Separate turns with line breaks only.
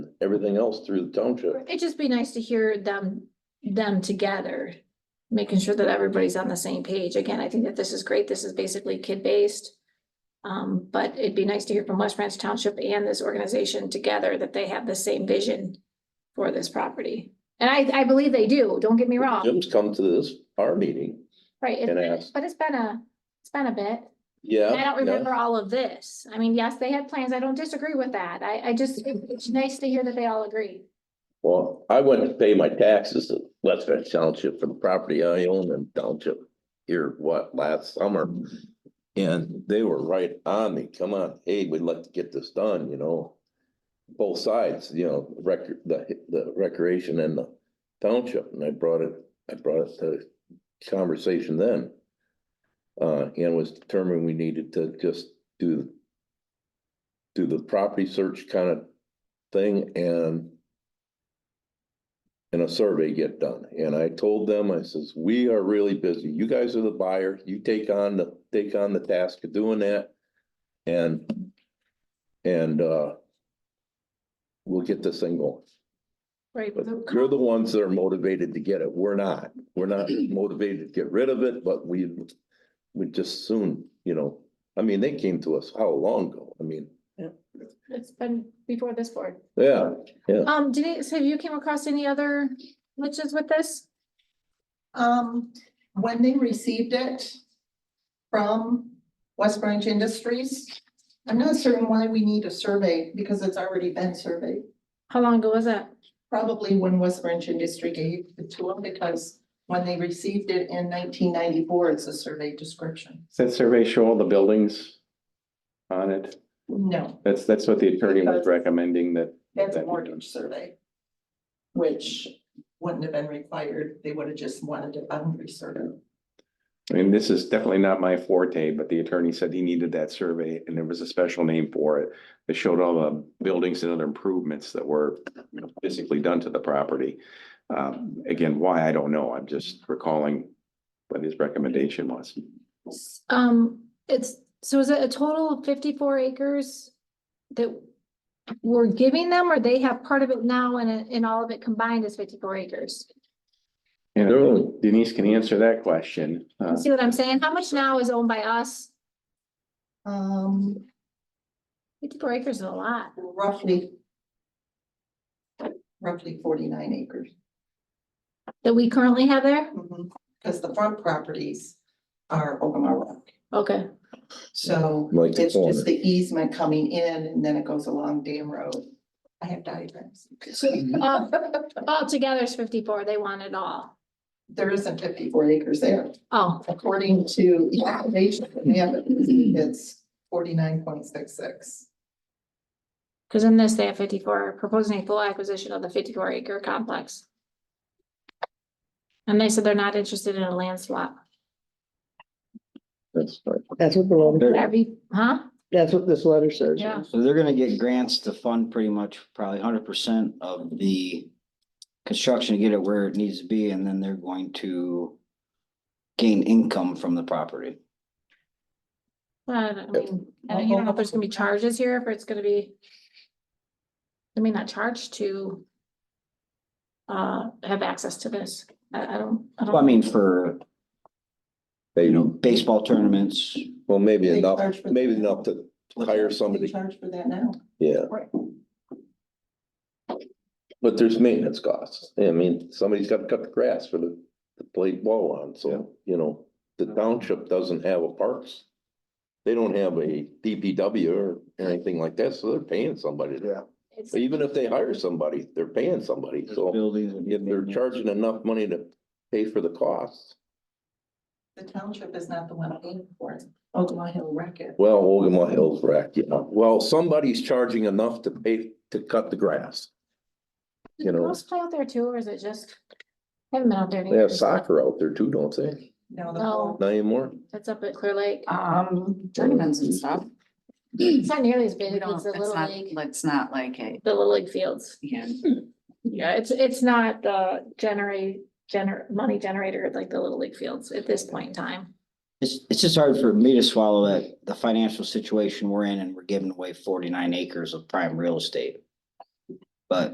everything else through the township.
It'd just be nice to hear them, them together, making sure that everybody's on the same page. Again, I think that this is great. This is basically kid-based. Um, but it'd be nice to hear from West Branch Township and this organization together that they have the same vision for this property. And I, I believe they do, don't get me wrong,
Jim's come to this, our meeting
right? it's
and
been-
asked,
But it's been a, it's been a bit.
yeah.
And I don't
yeah.
remember all of this. I mean, yes, they had plans. I don't disagree with that. I, I just, it's nice to hear that they all agree.
Well, I went to pay my taxes to West Valley Township for the property I own in township here, what, last summer. And they were right on me, come on, hey, we'd like to get this done, you know? Both sides, you know, rec, the, the recreation and the township, and I brought it, I brought it to conversation then. Uh, and was determined we needed to just do do the property search kind of thing and and a survey get done. And I told them, I says, we are really busy. You guys are the buyer. You take on the, take on the task of doing that. And, and, uh, we'll get this thing going.
Right.
But you're the ones that are motivated to get it. We're not. We're not motivated to get rid of it, but we, we just soon, you know, I mean, they came to us how long ago? I mean,
It's been before this board.
yeah,
Um, Denise, have you came across any other glitches with this?
Um, when they received it from West Branch Industries, I'm not certain why we need a survey because it's already been surveyed.
How long ago was that?
Probably when West Branch Industry gave it to them because when they received it in nineteen ninety-four, it's a survey description.
Does that survey show all the buildings on it?
No,
That's, that's what the attorney was recommending that.
that's a mortgage survey, which wouldn't have been required. They would have just wanted a boundary survey.
I mean, this is definitely not my forte, but the attorney said he needed that survey and there was a special name for it. That showed all the buildings and other improvements that were you know, physically done to the property. Um, again, why, I don't know. I'm just recalling what his recommendation was.
Um, it's, so is it a total of fifty-four acres that we're giving them or they have part of it now and, it- and all of it combined is fifty-four acres?
And Denise can answer that question. Uh,
See what I'm saying? How much now is owned by us?
Um,
Fifty-four acres is a lot.
roughly roughly forty-nine acres.
That we currently have there?
Mm-hmm, Because the front properties are Ogama Rock,
Okay,
so
Like the
it's
corner.
just the easement coming in and then it goes along Dam Road. I have diagrams.
uh, all together is fifty-four. They want it all.
There isn't fifty-four acres there,
Oh,
according to the application, we have it, it's forty-nine point six six.
because in this they have fifty-four, proposing a full acquisition of the fifty-four acre complex. And they said they're not interested in a land swap.
that's right.
That's what the, letter-
That'd be, huh?
that's what this letter says.
Yeah.
So they're gonna get grants to fund pretty much probably hundred percent of the construction to get it where it needs to be, and then they're going to gain income from the property.
But I mean, I don't- you don't know if there's gonna be charges here, if it's gonna be. I mean, not charged to. Uh, have access to this. I, I don't, I don't.
Well, I mean, for,
They,
you know, baseball tournaments,
well, maybe
They
enough,
charge for that.
maybe enough to hire
They
somebody,
charge for that now.
yeah. But there's maintenance costs. I mean, somebody's got to cut the grass for the, the played ball on, so, you know, the township doesn't have a parks. They don't have a DPW or anything like that, so they're paying somebody. Yeah.
It's-
Even if they hire somebody, they're paying somebody, so
buildings. and
if they're charging enough money to pay for the costs,
The township is not the one paying for it, Ogama Hill Record.
well, Ogama Hills wreck, yeah. Well, somebody's charging enough to pay, to cut the grass.
Do
you know.
girls play out there too, or is it just? I Haven't been out there. in
They have
years.
soccer out there too, don't they?
Now the
No.
whole
Not anymore?
That's up at Clear Lake.
Oh, Um, tournaments and stuff.
It's not nearly as big
We
as
don't,
the
it's
Little
not,
League,
it's not like a,
the Little League fields.
yeah,
Yeah, it's, it's not the generate, gener, money generator like the Little League fields at this point in time.
It's, it's just hard for me to swallow that the financial situation we're in and we're giving away forty-nine acres of prime real estate.